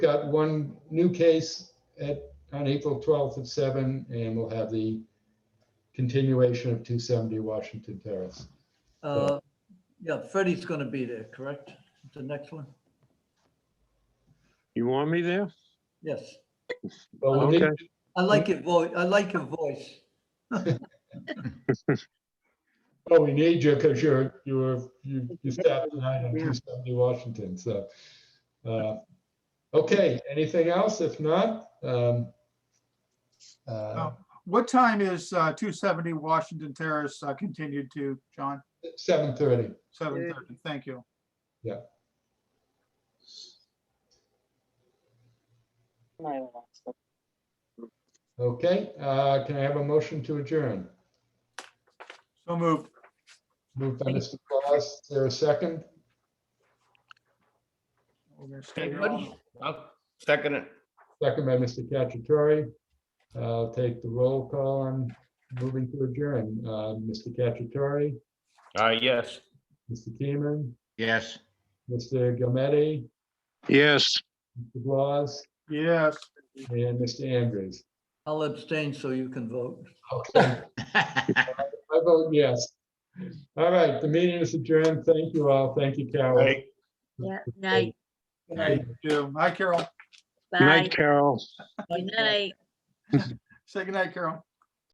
got one new case at, on April 12th at seven, and we'll have the continuation of 270 Washington Terrace. Uh, Yeah, Freddie's going to be there, correct? The next one? You want me there? Yes. Well, we'll need- Okay. I like your voice. I like your voice. Oh, we need you because you're, you were, you, you stopped tonight on 270 Washington, so. uh, Okay, anything else? If not, um, uh, No. What time is uh, 270 Washington Terrace uh, continued to, John? 7:30. 7:30, thank you. Okay, uh, can I have a motion to adjourn? So moved. Moved by Mr. Claus, is there a second? We're gonna stay here all night. Everybody? I'll Second it. Second by Mr. Cacciatore. I'll take the roll call on moving to adjourn. Uh, Mr. Cacciatore, Uh, yes. Mr. Keeman, Yes. Mr. Gometti, Yes. Mr. Claus, Yes. and Mr. Andrews. I'll abstain so you can vote. Okay, I vote yes. All right, the meeting is adjourned. Thank you all. Thank you, Carol. Right. Yeah, night, Thank you. Hi, Carol. Good bye, night, Carol. good night. Say goodnight, Carol.